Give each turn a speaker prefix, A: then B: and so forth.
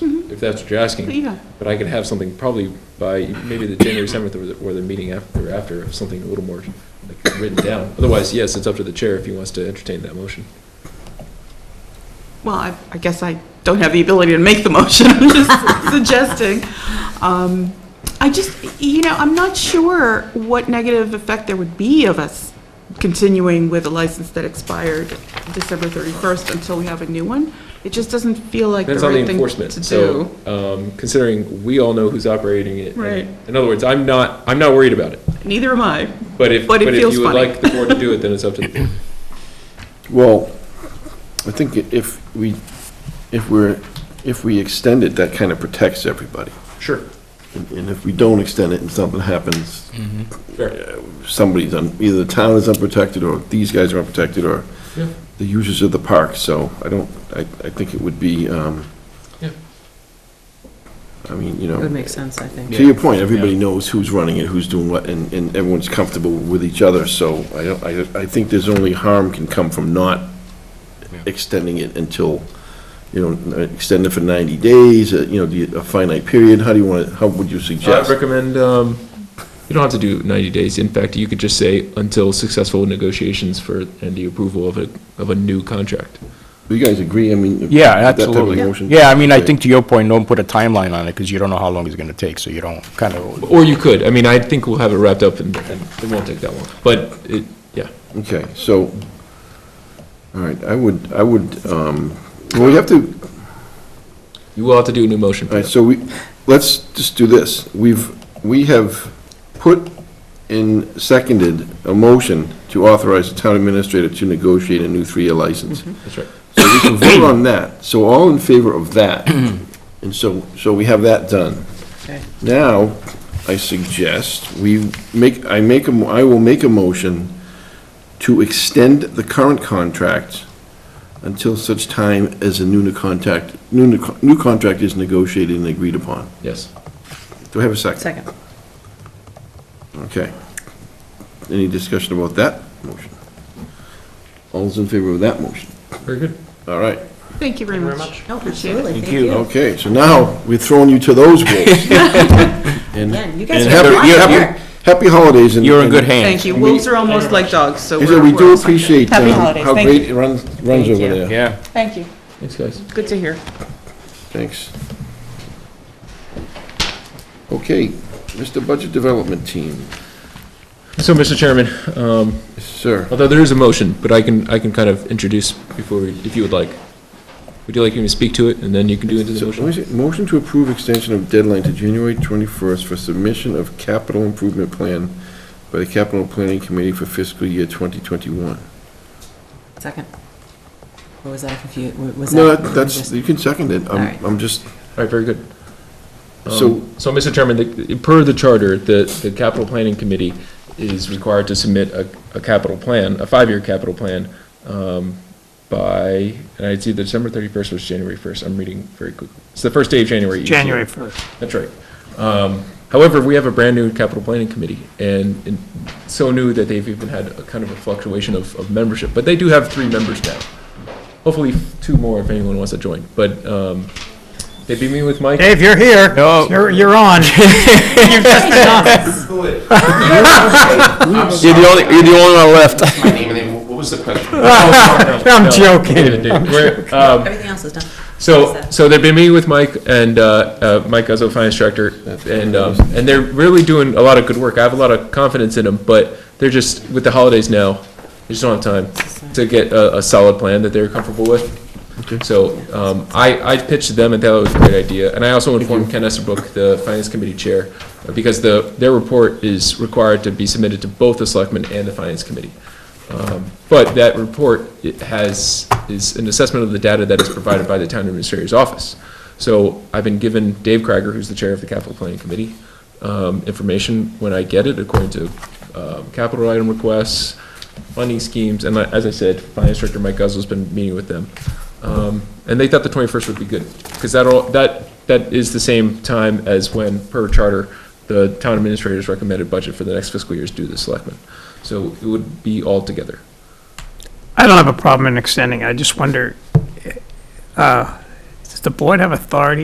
A: Mm-hmm.
B: if that's what you're asking.
A: Yeah.
B: But I could have something probably by maybe the January 7th or the- or the meeting after, after, something a little more like written down. Otherwise, yes, it's up to the chair if he wants to entertain that motion.
A: Well, I, I guess I don't have the ability to make the motion, I'm just suggesting. Um, I just, you know, I'm not sure what negative effect there would be of us continuing with a license that expired December 31st until we have a new one. It just doesn't feel like the
B: Depends on the
A: right thing
B: enforcement.
A: to
B: So,
A: do.
B: um, considering we all know who's operating it. and-
A: Right.
B: In other words, I'm not, I'm not worried about it.
A: Neither am I.
B: But if,
A: But
B: but
A: it
B: if
A: feels
B: you would
A: funny.
B: like the board to do it, then it's up to the board.
C: Well, I think i- if we, if we're, if we extend it, that kind of protects everybody.
B: Sure.
C: And and if we don't extend it and something happens,
B: Fair.
C: somebody's, un- either the town is unprotected, or these guys are unprotected, or
B: Yeah.
C: the users of the park, so I don't, I, I think it would be, um,
B: Yeah.
C: I mean, you know.
D: It would make sense, I think.
C: To your point, everybody knows who's running it, who's doing what, and, and everyone's comfortable with each other, so I don't, I, I think there's only harm can come from not extending it until, you know, extend it for ninety days, uh, you know, do you- a finite period, how do you want, how would you
B: I'd
C: suggest?
E: Uh,
B: recommend, um, you don't have to do 90 days. In fact, you could just say until successful negotiations for, and the approval of a, of a new contract.
C: Do you guys agree, I mean?
E: Yeah,
C: with that type of
E: absolutely.
C: motion?
E: Yeah, I mean, I think to your point, don't put a timeline on it, because you don't know how long it's gonna take, so you don't kind of,
B: Or you could, I mean, I think we'll have it wrapped up and, and it won't take that long, but it, yeah.
C: Okay, so, all right, I would, I would, um, well, we have to,
B: You will have to do a new motion
C: All
B: for
C: right,
B: that.
C: so we, let's just do this. We've, we have put in, seconded a motion to authorize the town administrator to negotiate a new three-year license.
B: That's right.
C: So we can vote on that. So all in favor of that? And so, so we have that done.
D: Okay.
C: Now, I suggest we make, I make, a mo- I will make a motion to extend the current contract until such time as a new ne- contact, new, ne- new contract is negotiated and agreed upon.
B: Yes.
C: Do I have a second?
D: Second.
C: Okay. Any discussion about that motion? All's in favor of that motion?
B: Very good.
C: All right.
A: Thank you very much.
D: No,
A: Appreciate it.
D: absolutely, thank
E: Thank you.
D: you.
C: Okay, so now we're throwing you to those wolves. And
D: Again, you guys
C: and
D: are doing a lot
C: happy,
D: of
C: happy,
D: work.
C: happy holidays. and-
E: you're in good
C: and-
E: hands.
A: Thank you. Wolves are almost like dogs, so
C: So
A: we're.
C: we do
A: we're-
C: appreciate
A: Happy
C: um,
A: holidays.
C: how
A: Thank
C: great it runs, runs
D: Thank
C: over
D: you.
C: there.
E: Yeah.
A: Thank you.
B: Thanks, guys.
A: Good to hear.
C: Thanks. Okay, Mr. Budget Development Team,
B: So, Mr. Chairman, um,
C: sir.
B: although there is a motion, but I can, I can kind of introduce before, we- if you would like. Would you like me to speak to it and then you can do into the
C: So,
B: motion?
C: let me see, Motion to approve extension of deadline to January 21st for submission of capital improvement plan by the Capital Planning Committee for fiscal year 2021.
D: Second. What was that, confused, was that?
C: No,
D: you were
C: that's,
D: just-
C: you can second it.
D: All right.
C: I'm, I'm just,
B: All right, very good. Um,
C: So-
B: So, Mr. Chairman, the- per the charter, the, the capital planning committee is required to submit a, a capital plan, a five-year capital plan, um, by, and I see the December thirty-first was January first, I'm reading very quick. It's the first day of January. each year.
F: January 1st.
B: That's right. Um, However, we have a brand-new capital planning committee, and and so new that they've even had a kind of a fluctuation of, of membership, but they do have three members now. Hopefully, two more if anyone wants to join, but um, they beat me with Mike.
F: Dave, you're here.
E: No.
F: You're, you're on.
E: You're the only, you're the only one left.
G: my name and then what was the question?
F: I'm joking.
B: David, we're, um,
D: Everything else is done.
B: So, so they've been meeting with Mike and, uh, uh, Mike Guzzo, finance director, and, um, and they're really doing a lot of good work. I have a lot of confidence in them, but they're just, with the holidays now, they just don't have time to get a, a solid plan that they're comfortable with. So, um, I, I pitched to them and thought it was a great idea, and I also informed Ken Estabrook, the finance committee chair, because the, their report is required to be submitted to both the selectmen and the finance committee. Um, But that report it has, is an assessment of the data that is provided by the town administrator's office. So I've been given Dave Krager, who's the chair of the capital planning committee, um, information when I get it according to um, capital item requests, funding schemes, and I- as I said, finance director Mike Guzzo's been meeting with them. Um, And they thought the 21st would be good, because that all, that, that is the same time as when, per charter, the town administrator's recommended budget for the next fiscal year is due to the selectmen. So it would be all together.
F: I don't have a problem in extending. I just wonder, uh, does the board have authority